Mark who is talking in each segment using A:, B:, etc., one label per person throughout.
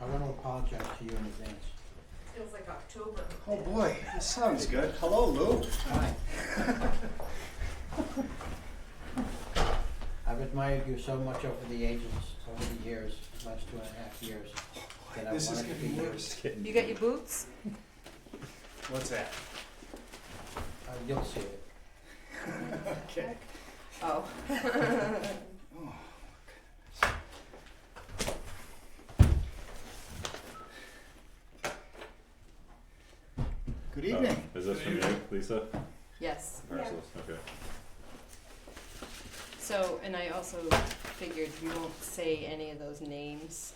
A: apologize to you in advance.
B: Feels like October.
C: Oh boy, this sounds good. Hello, Lou.
A: Hi. I've admired you so much over the ages, over the years, last two and a half years, that I
C: This is
A: wanted to be
C: getting
A: you.
C: worse.
B: You got your boots?
C: What's that?
A: Uh, You'll see it.
C: Okay.
B: Oh.
C: Good
D: Oh,
C: evening.
D: Is this from you, Lisa?
B: Yes,
D: Parcels, okay.
B: so, and I also figured we won't say any of those names,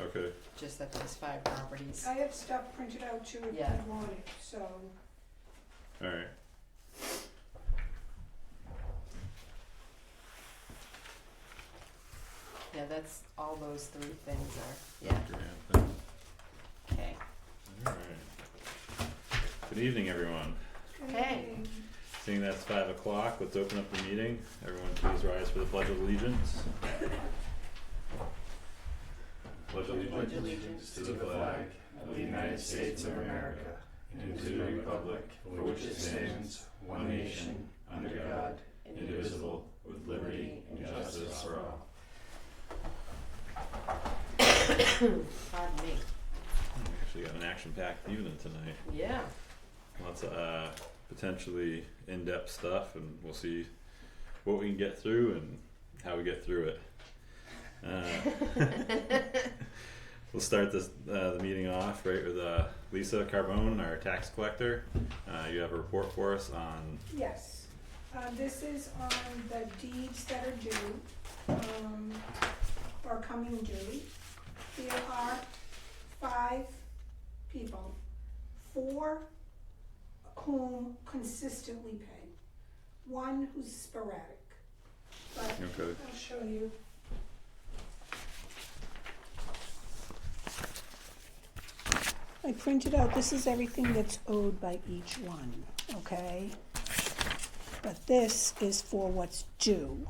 D: Okay,
B: just that there's five properties.
E: I have stuff printed out too if
B: Yeah.
E: you want it, so.
D: alright.
B: Yeah, that's, all those three things are, yeah, okay.
D: Alright. Good evening, everyone.
B: Okay.
E: um,
D: Seeing that's five o'clock, let's open up the meeting. Everyone please rise for the Pledge of Allegiance. Pledge of
B: Pledge
D: allegiance
B: allegiance
D: to the flag of the United States of America and to the republic for which it stands, one nation, under God, indivisible, with liberty and justice for all.
B: Pardon me,
D: We Actually got an action-packed evening tonight.
B: yeah,
D: lots of uh, potentially in-depth stuff and we'll see what we can get through and how we get through it uh, we'll start this uh, the meeting off right with uh, lisa carbone our tax collector uh, you have a report for us on
E: Yes, uh, this is on the deeds that are due, um, or coming due. There are five people, four whom consistently pay, one who's sporadic. But
D: okay
E: I'll show you. I printed out, this is everything that's owed by each one, okay? But this is for what's due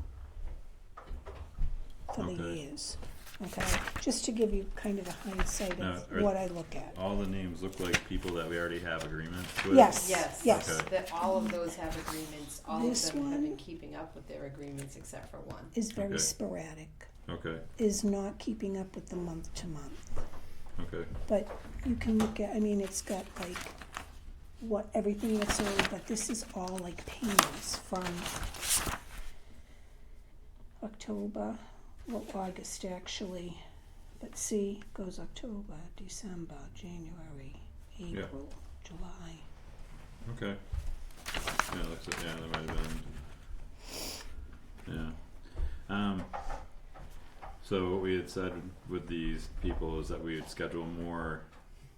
E: for the
D: Okay.
E: years, okay? Just to give you kind of a hindsight
D: No,
E: of
D: are-
E: what I look at.
D: all the names look like people that we already have agreements with
E: Yes.
B: yes.
E: Yes.
D: Okay.
B: That all of those have agreements, all of
E: This
B: them have been
E: one?
B: keeping up with their agreements except for one.
E: Is
D: Okay.
E: very sporadic,
D: okay
E: is not keeping up with the month to month.
D: okay
E: But you can look at, I mean, it's got like what, everything that's owed, but this is all like payments from October, well, August actually. But see, goes October, December, January,
D: Yeah.
E: April, July.
D: Okay. Yeah, it looks like, yeah, there might have been. Yeah. Um, so what we had said with these people is that we would schedule more,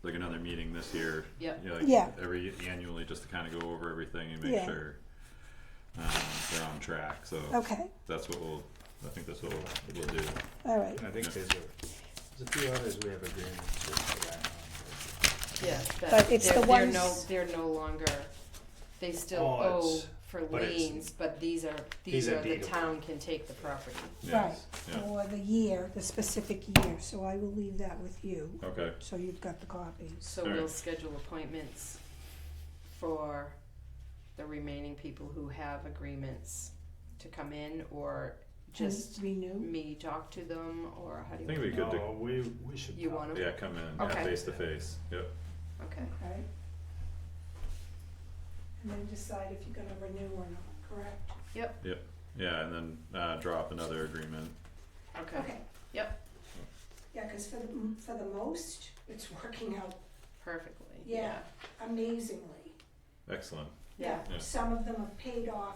D: like another meeting this year.
B: Yep.
D: Yeah. Like
E: Yeah.
D: Every annually, just to kind of go over everything and make
E: Yeah.
D: sure um, they're on track. So
E: Okay,
D: that's what we'll. I think that's what we'll, we'll do.
E: all right,
F: I think
D: Yeah.
F: there's a, there's a few others we have agreements with for that. um,
B: Yes, but
E: But it's
B: they're,
E: the
B: they're no,
E: ones-
B: they're no longer, they still
F: Oh,
B: owe
F: it's-
B: for
F: but it's-
B: liens, but these are, these
F: These are
B: are, the
F: deedable.
B: town can take the property.
D: Yes.
E: right, or the year, the specific year, so I will leave that with you,
D: Yeah. Okay.
E: so you've got the copies.
B: So
D: All
B: we'll
D: right.
B: schedule appointments for the remaining people who have agreements to come in, or just
E: And Renew,
B: me talk to them, or how do
D: I
B: you?
D: think we
B: want
D: could.
F: No, we, we
B: to-
F: should.
B: You
F: talk.
B: want
D: do,
B: them?
D: yeah, come in yeah,
B: Okay.
D: face to face. Yep.
B: Okay,
E: okay? And then decide if you're gonna renew or not, correct?
D: Yeah, and then uh, draw up another agreement.
B: okay,
E: Yeah, cause for the, mm, for the most, it's working out
B: perfectly,
E: Yeah.
B: yeah,
E: amazingly.
D: Excellent.
B: yeah,
D: Yeah.
E: Some of them have paid off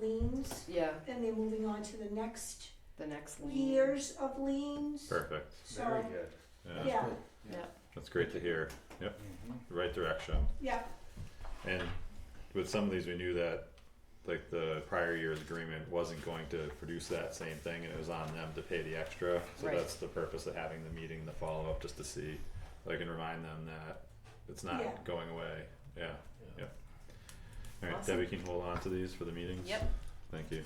E: liens,
B: yeah,
E: and they're moving on to the next
B: the next lien.
E: years of liens,
D: Perfect.
F: Very
E: so,
F: good.
D: Yeah.
E: yeah,
D: That's great to hear.
C: Mm-hmm.
F: Mhm.
D: Right direction.
E: yeah,
D: And with some of these, we knew that like the prior year's agreement wasn't going to produce that same thing, and it was on them to pay the extra. So
B: Right.
D: that's the purpose of having the meeting, the follow up, just to see, like, and remind them that it's not
E: Yeah.
D: going away. Yeah.
F: Yeah.
D: All right,
B: Awesome.
D: Debbie can you hold on to these for the meetings.
B: Yep,
D: Thank you.